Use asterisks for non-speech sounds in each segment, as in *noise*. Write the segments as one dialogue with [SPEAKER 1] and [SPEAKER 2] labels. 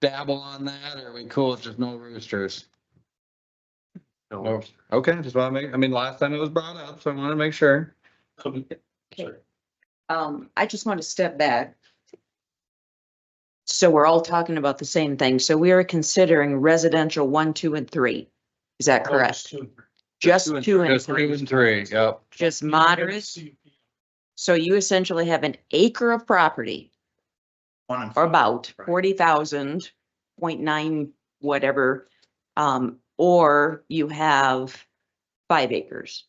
[SPEAKER 1] dabble on that, or are we cool if there's no roosters?
[SPEAKER 2] No.
[SPEAKER 1] No, okay, just want to make, I mean, last time it was brought up, so I want to make sure.
[SPEAKER 2] Sorry.
[SPEAKER 3] Um, I just want to step back. So we're all talking about the same thing. So we are considering residential one, two, and three. Is
[SPEAKER 2] Oh,
[SPEAKER 3] that correct? Just two and
[SPEAKER 1] Just two
[SPEAKER 3] three,
[SPEAKER 1] and three, yep.
[SPEAKER 3] just moderate. So you essentially have an acre of property
[SPEAKER 4] One and
[SPEAKER 3] or
[SPEAKER 4] five.
[SPEAKER 3] about
[SPEAKER 4] Right.
[SPEAKER 3] forty thousand point nine whatever. Um, or you have five acres.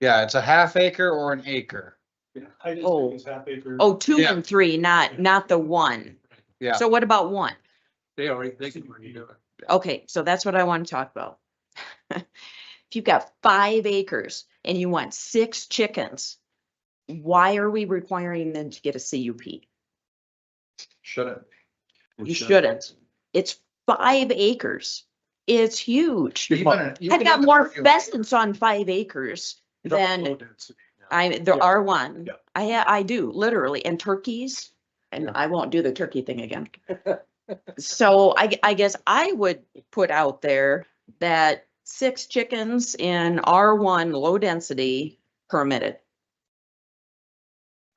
[SPEAKER 1] Yeah, it's a half acre or an acre.
[SPEAKER 2] I just
[SPEAKER 3] Oh.
[SPEAKER 2] think it's half acre.
[SPEAKER 3] Oh, two
[SPEAKER 1] Yeah.
[SPEAKER 3] and three, not, not the one.
[SPEAKER 1] Yeah.
[SPEAKER 3] So what about one?
[SPEAKER 1] They already,
[SPEAKER 2] They can redo it.
[SPEAKER 3] Okay, so that's what I want to talk about. *laughs* If you've got five acres and you want six chickens, why are we requiring them to get a CUP?
[SPEAKER 1] Shouldn't.
[SPEAKER 3] You shouldn't. It's five acres. It's huge.
[SPEAKER 4] You can- you
[SPEAKER 3] I've
[SPEAKER 4] can
[SPEAKER 3] got
[SPEAKER 4] have
[SPEAKER 3] more
[SPEAKER 4] an argument.
[SPEAKER 3] pheasants on five acres than I, there
[SPEAKER 2] Yeah.
[SPEAKER 3] are one.
[SPEAKER 2] Yeah.
[SPEAKER 3] I, ha- I do, literally, and turkeys, and I won't do the turkey
[SPEAKER 2] *laughs*
[SPEAKER 3] thing again. So I, g- I guess I would put out there that six chickens in R one low density permitted.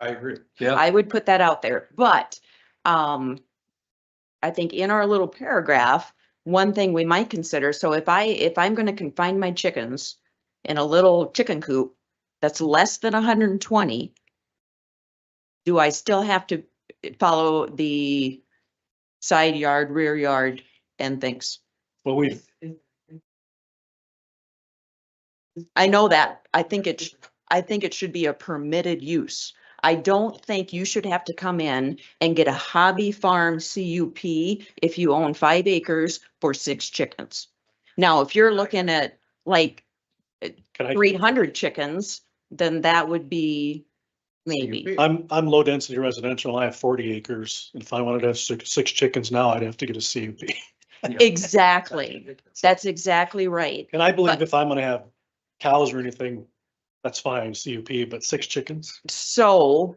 [SPEAKER 2] I agree.
[SPEAKER 1] Yeah.
[SPEAKER 3] I would put that out there, but, um, I think in our little paragraph, one thing we might consider, so if I, if I'm gonna confine my chickens in a little chicken coop that's less than hundred and twenty, do I still have to follow the side yard, rear yard and things?
[SPEAKER 2] Well, we,
[SPEAKER 3] I know that. I think it, sh- I think it should be a permitted use. I don't think you should have to come in and get a hobby farm CUP if you own five acres for six chickens. Now, if you're looking at like
[SPEAKER 2] can I,
[SPEAKER 3] three hundred chickens, then that would be maybe.
[SPEAKER 2] I'm, I'm low density residential. I have forty acres. and If I wanted to have six, six chickens now, I'd have to get a CUP.
[SPEAKER 3] *laughs* Exactly. That's exactly right.
[SPEAKER 2] *laughs* And I believe
[SPEAKER 3] But-
[SPEAKER 2] if I'm gonna have cows or anything, that's fine, CUP, but six chickens?
[SPEAKER 3] So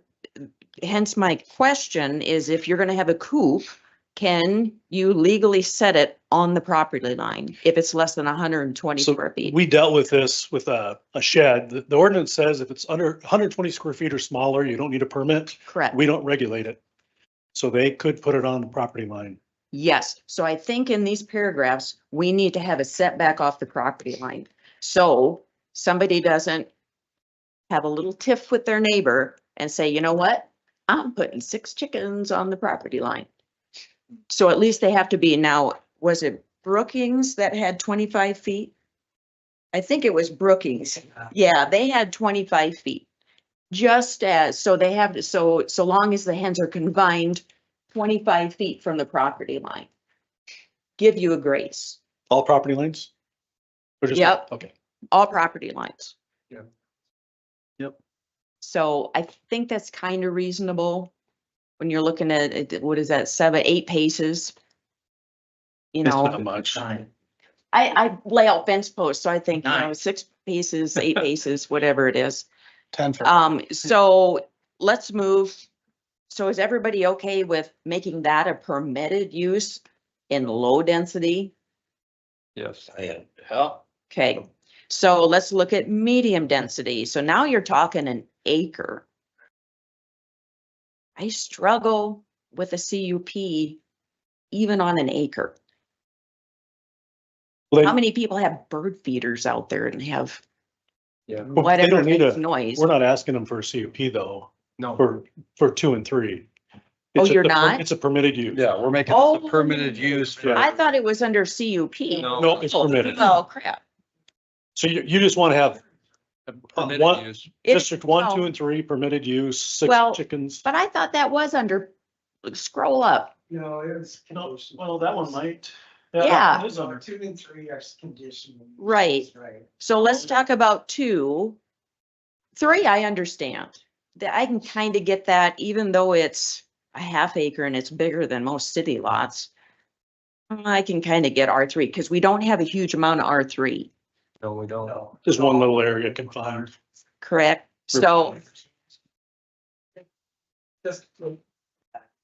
[SPEAKER 3] hence my question is if you're gonna have a coop, can you legally set it on the property line if it's less than hundred and twenty
[SPEAKER 2] So
[SPEAKER 3] square feet?
[SPEAKER 2] We dealt with this with a, a shed. The the ordinance says if it's under hundred and twenty square feet or smaller, you don't need a permit.
[SPEAKER 3] Correct.
[SPEAKER 2] We don't regulate it. So they could put it on the property line.
[SPEAKER 3] Yes, so I think in these paragraphs, we need to have a setback off the property line. So somebody doesn't have a little tiff with their neighbor and say, you know what? I'm putting six chickens on the property line. So at least they have to be now, was it Brookings that had twenty-five feet? I think it was Brookings. Yeah, they had twenty-five feet. Just as, so they have, to. so, so long as the hens are confined twenty-five feet from the property line. Give you a grace,
[SPEAKER 2] All property lines? Or just-
[SPEAKER 3] Yep.
[SPEAKER 2] Okay.
[SPEAKER 3] all property lines.
[SPEAKER 2] Yeah. Yep.
[SPEAKER 3] So I think that's kind of reasonable when you're looking at, it, what is that, seven, eight paces? You
[SPEAKER 2] It's
[SPEAKER 3] know,
[SPEAKER 2] not much.
[SPEAKER 4] Nine.
[SPEAKER 3] I, I lay out fence posts, so I think, you know,
[SPEAKER 4] Nice.
[SPEAKER 3] six
[SPEAKER 2] *laughs*
[SPEAKER 3] paces, eight paces, whatever it is.
[SPEAKER 2] Ten for
[SPEAKER 3] Um, so let's move. So is everybody okay with making that a permitted use in low density?
[SPEAKER 1] Yes.
[SPEAKER 3] Okay, so let's look at medium density. So now you're talking an acre. I struggle with a CUP even on an acre.
[SPEAKER 2] Well,
[SPEAKER 3] How
[SPEAKER 2] they-
[SPEAKER 3] many people have bird feeders out there and have
[SPEAKER 2] well, They
[SPEAKER 3] whatever
[SPEAKER 2] don't need
[SPEAKER 3] makes
[SPEAKER 2] a,
[SPEAKER 3] noise?
[SPEAKER 2] we're not asking them for a CUP though,
[SPEAKER 1] No.
[SPEAKER 2] for, for two and three.
[SPEAKER 3] Oh,
[SPEAKER 2] It's a-
[SPEAKER 3] you're
[SPEAKER 2] the per-
[SPEAKER 3] not?
[SPEAKER 2] It's a permitted use.
[SPEAKER 1] Yeah, we're making this a
[SPEAKER 3] Oh.
[SPEAKER 1] permitted use for.
[SPEAKER 3] I thought it was under CUP.
[SPEAKER 1] No.
[SPEAKER 2] No, it's permitted.
[SPEAKER 3] Oh crap.
[SPEAKER 2] So you, you just want to have
[SPEAKER 1] Permitted
[SPEAKER 2] One-
[SPEAKER 1] use.
[SPEAKER 3] It-
[SPEAKER 2] district one,
[SPEAKER 3] no.
[SPEAKER 2] two and three permitted use, six
[SPEAKER 3] Well-
[SPEAKER 2] chickens.
[SPEAKER 3] But I thought that was under, scroll up.
[SPEAKER 5] You know, it was.
[SPEAKER 2] Well, that one might.
[SPEAKER 3] Yeah.
[SPEAKER 5] Number two and three are conditional.
[SPEAKER 3] Right.
[SPEAKER 5] Right.
[SPEAKER 3] So let's talk about two. Three, I understand. That I can kind of get that even though it's a half acre and it's bigger than most city lots. I can kind of get R three because we don't have a huge amount of R three,
[SPEAKER 1] No, we don't.
[SPEAKER 5] No.
[SPEAKER 2] There's one little area confined.
[SPEAKER 3] correct? So
[SPEAKER 5] Just the